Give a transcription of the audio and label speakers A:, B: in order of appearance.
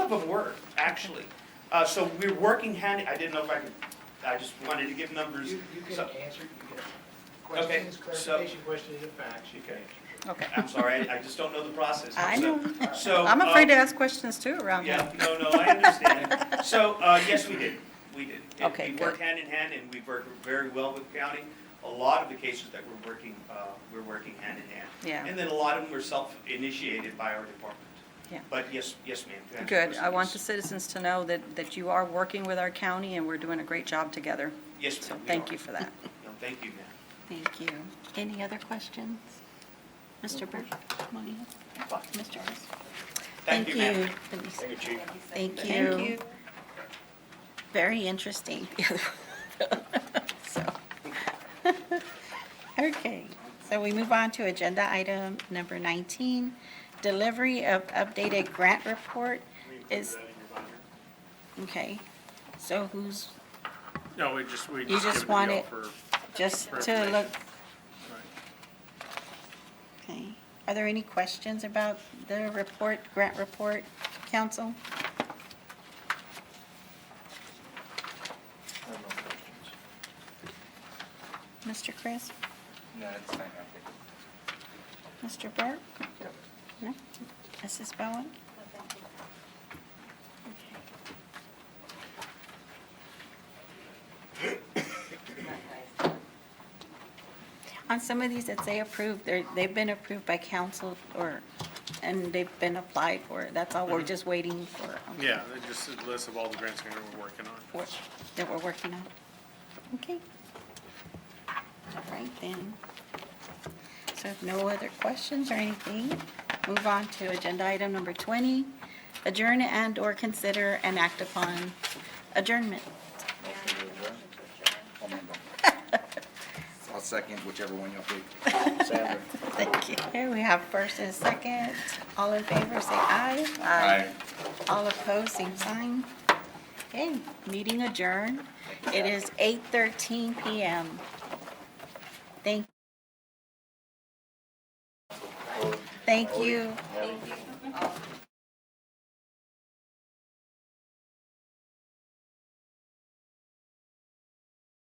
A: scope of work, actually. Uh, so we're working hand, I didn't know if I could, I just wanted to give numbers.
B: You, you can
A: So-
B: answer, you can,
A: Okay,
B: questions,
A: so-
B: clarification, questions, and facts, you can
A: Okay.
B: answer.
C: Okay.
A: I'm sorry, I I just don't know the process.
C: I
A: So-
C: know.
A: So.
C: I'm afraid to
A: um,
C: ask questions too around here.
A: Yeah, no, no, I understand. So, uh, yes, we did, we did. It-
C: Okay,
A: We
C: good.
A: worked hand in hand, and we've worked very well with county. A lot of the cases that we're working, uh, we're working hand in hand.
C: Yeah.
A: And then a lot of them were self-initiated by our department.
C: Yeah.
A: But yes, yes, ma'am. to answer your
C: Good. I
A: question,
C: want
A: yes.
C: the citizens to know that, that you are working with our county and we're doing a great job together.
A: Yes,
C: So
A: ma'am. we
C: thank
A: are.
C: you for that.
A: No, thank you, ma'am.
D: Thank you. Any other questions? Mr. Burke? come on in. Mr. Burke?
A: Thank you, ma'am.
D: Let me see.
E: Thank you, Chief.
D: Thank
C: Thank
D: you.
C: you.
D: Very interesting. So, Okay, so we move on to agenda item number 19, delivery of updated grant report is, okay, so who's,
E: No, we just, we
D: You
E: just
D: just
E: give it
D: want
E: to y'all
D: it-
E: for,
D: just to
E: Preparation.
D: look,
E: right.
D: okay. Are there any questions about the report, grant report, council?
F: I have no questions.
D: Mr. Chris?
F: No, it's fine, I think.
D: Mr. Burke? No? Mrs. Bowen? On some of these that say approved, they're, they've been approved by council or, and they've been applied for. That's all, we're just waiting for. okay,
E: yeah, it just a list of all the grants that we're working on.
D: for- That we're working on. Okay. All right then. So if no other questions or anything, move on to agenda item number 20, adjourn and/or consider and act upon adjournment.
F: Motion to adjourn? I'll move on. I'll second whichever one y'all pick. Sandra?
D: Thank you. Here we have first and second. All in favor, say aye.
F: Aye.
D: All opposed, same sign. Okay, meeting adjourned. It is 8:13 PM. Thank. Thank you.
F: Nelly?